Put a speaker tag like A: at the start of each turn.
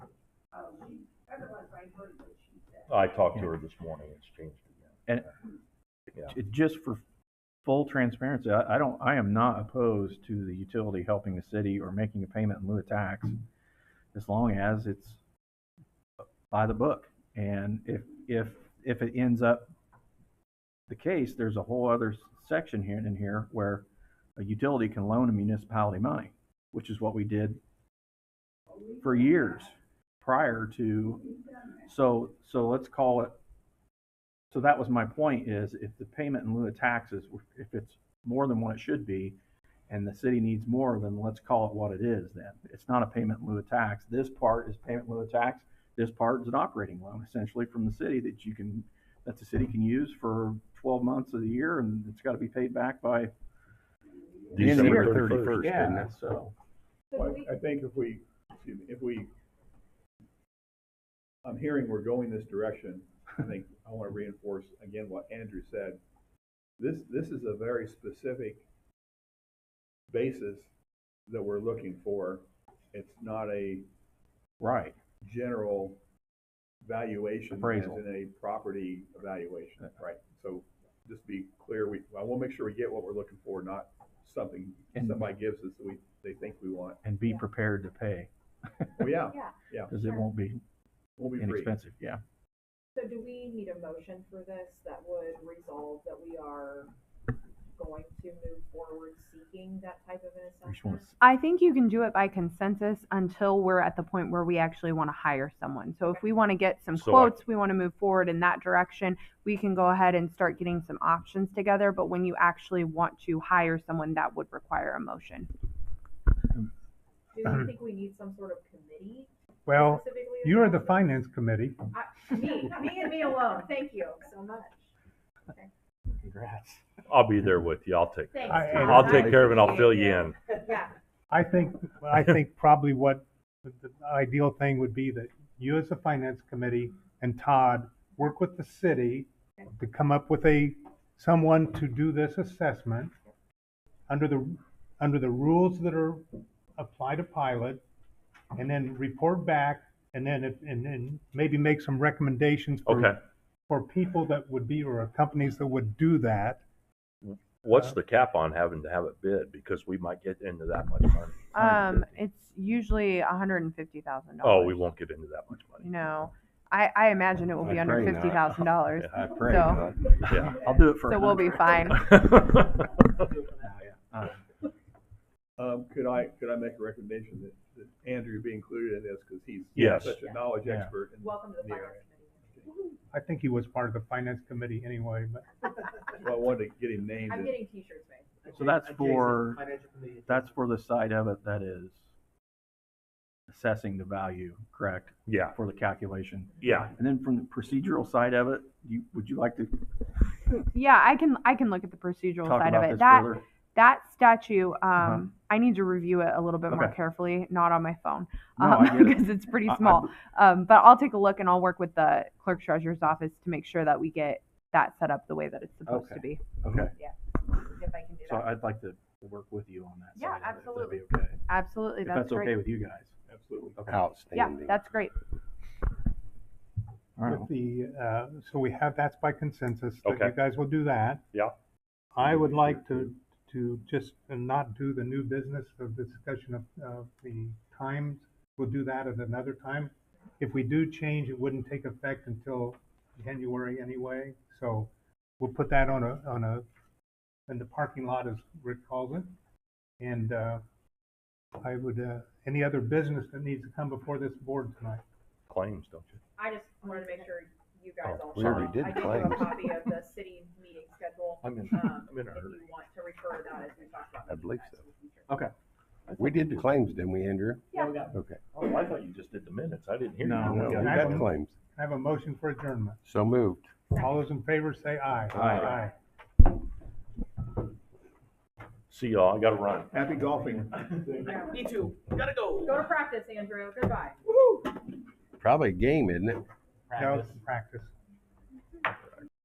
A: heard what she said.
B: I talked to her this morning, it's changed again.
C: And- J- Just for full transparency, I, I don't, I am not opposed to the utility helping the city or making a payment in lieu of tax, as long as it's by the book. And if, if, if it ends up the case, there's a whole other s- section here in here where a utility can loan a municipality money, which is what we did for years prior to so, so let's call it, so that was my point is if the payment in lieu of taxes, if it's more than what it should be, and the city needs more, then let's call it what it is then. It's not a payment in lieu of tax. This part is payment in lieu of tax. This part is an operating loan essentially from the city that you can, that the city can use for twelve months of the year and it's gotta be paid back by, end of the year,
B: December thirty-first, isn't
C: yeah,
B: it?
C: so.
D: Well,
A: Could we,
D: I think if we, excuse me, if we, I'm hearing we're going this direction, I think, I wanna reinforce again what Andrew said. This, this is a very specific basis that we're looking for. It's not a
C: Right.
D: general valuation as
C: Appraisal.
D: in a property evaluation, right? So just be clear, we, I will make sure we get what we're looking for, not something
C: And-
D: somebody gives us that we, they think we want.
C: And be prepared to pay,
D: Well, yeah,
A: yeah,
C: cause it won't be
D: we'll be free.
C: inexpensive, yeah.
A: so do we need a motion for this that would resolve that we are going to move forward seeking that type of an
C: We just
A: assessment?
C: wanna s-
E: I think you can do it by consensus until we're at the point where we actually want to hire someone. So if we want to get some
B: So I-
E: quotes, we want to move forward in that direction, we can go ahead and start getting some options together. But when you actually want to hire someone, that would require a motion.
A: Do you think we need some sort of committee
F: Well,
A: specifically?
F: you are the finance committee.
A: I- Me, me and me alone, thank you so much.
C: Congrats.
B: I'll be there with you, I'll take,
A: Thanks,
F: I-
A: Todd.
B: I'll take
A: I
B: care of it, I'll fill you
A: appreciate
B: in.
A: Yeah,
F: I think, I think probably what the the ideal thing would be that you as the finance committee and Todd work with the city to come up with a, someone to do this assessment under the, under the rules that are apply to pilot and then report back and then, if- and then maybe make some recommendations
B: Okay.
F: for, for people that would be, or companies that would do that.
B: What's the cap on having to have it bid? Because we might get into that much money.
E: Um, it's usually $150,000.
B: Oh, we won't get into that much money.
E: No, I, I imagine it will be
G: I
E: under
G: pray not.
E: $50,000.
G: I pray
E: So-
G: not.
B: Yeah.
C: I'll do it for a
E: So we'll be
C: hundred.
E: fine.
C: Uh,
D: Um, could I, could I make a recommendation that, that Andrew be included in this, cause he's
B: Yes.
D: such a knowledge
C: Yeah.
D: expert. in-
A: welcome to the
D: Yeah.
A: finance committee.
F: I think he was part of the finance committee anyway, but
D: Well, I wanted to get him named.
A: I'm getting t-shirts made.
C: So that's for- That's for the side of it that is assessing the value, correct,
B: Yeah,
C: for the calculation.
B: yeah.
C: And then from the procedural side of it, you, would you like to
E: Yeah, I can I can look at the procedural
C: talk
E: side of
C: about
E: it.
C: this
E: That
C: further?
E: that statue, um,
C: Uh-huh.
E: I need to review it a little bit more
C: Okay.
E: carefully, not on my phone, um,
C: No, I get it.
E: because it's pretty
C: I- I-
E: small. um, but I'll take a look and I'll work with the clerk treasurer's office to make sure that we get that set up the way that it's supposed to be.
C: Okay,
E: If I can do
C: so
E: that,
C: I'd like to work with you on that
A: Yeah,
C: side of it, if that'd be
A: absolutely.
C: okay.
E: absolutely,
C: If
E: that's,
C: that's okay
E: great.
C: with you guys.
D: Absolutely.
E: Yeah,
G: Outstanding.
E: that's great.
C: All right.
F: with the, uh, so we have, that's by consensus, that
B: Okay.
F: you guys will do that.
B: Yeah.
F: I would like to, to just not do the new business of the discussion of, of the times. We'll do that at another time. If we do change, it wouldn't take effect until January anyway, so we'll put that on a, on a, in the parking lot as Rick calls it. And, uh, I would, uh, any other business that needs to come before this board tonight?
B: Claims, don't you?
A: I just wanted to make sure you guys
B: Oh,
A: all.
B: we
A: saw.
B: already
G: did
A: I did have a
G: claims.
A: copy of the city meeting schedule.
B: I'm in,
A: um,
B: I'm in a
A: If
B: hurry.
A: you want to refer to that as we talk about.
G: I believe so.
C: Okay.
G: We did the claims, didn't we, Andrew?
A: Yeah.
G: Okay.
B: Oh, I thought you just did the minutes. I didn't hear you.
C: No,
G: No, we
F: I
G: got
F: will-
G: claims.
F: I have a motion for adjournment.
G: So moved.
F: All those in favor say aye.
C: Aye.
B: See y'all, I gotta run.
D: Happy golfing.
A: Yeah.
H: Me too. Gotta go.
A: Go to practice, Andrew. Goodbye.
G: Probably a game, isn't it?
F: No, practice.